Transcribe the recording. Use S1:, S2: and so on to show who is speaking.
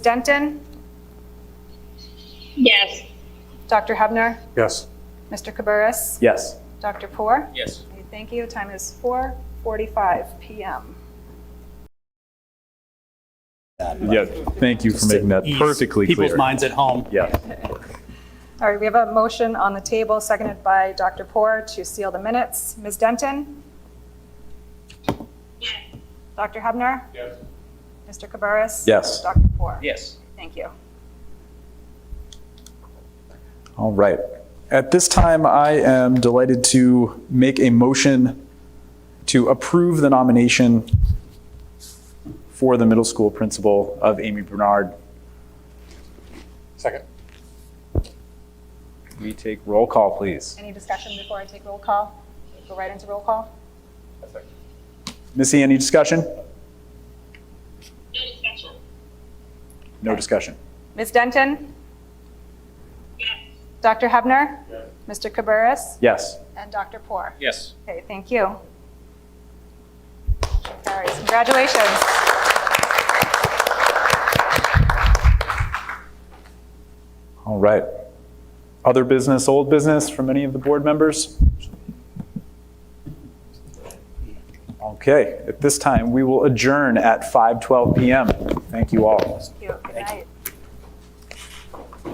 S1: Denton,
S2: Yes.
S1: Dr. Hebner,
S3: Yes.
S1: Mr. Cabarrus,
S3: Yes.
S1: Dr. Poor.
S4: Yes.
S1: Okay, Thank you. Time is 4:45 PM.
S5: Yeah, thank you for making that
S4: Ease
S5: perfectly
S4: People's
S5: clear.
S4: minds at home.
S5: Yeah,
S1: All right, we have a motion on the table, seconded by Dr. Poor, to seal the minutes. Ms. Denton? Dr. Hebner?
S4: Yes.
S1: Mr. Cabarrus?
S5: Yes.
S1: Dr. Poor?
S4: Yes.
S1: Thank you.
S5: all right. At this time, I am delighted to make a motion to approve the nomination for the middle school principal of Amy Bernard.
S3: Second.
S5: We take roll call, please.
S1: Any discussion before I take roll call? Go right into roll call?
S5: Missy, any discussion?
S2: No discussion.
S5: No discussion.
S1: Ms. Denton? Dr. Hebner? Mr. Cabarrus?
S5: Yes.
S1: And Dr. Poor?
S4: Yes.
S1: Okay, thank you. All right, congratulations.
S5: All right. Other business, old business from any of the board members? Okay, at this time, we will adjourn at 5:12 PM. Thank you all.
S1: Cute.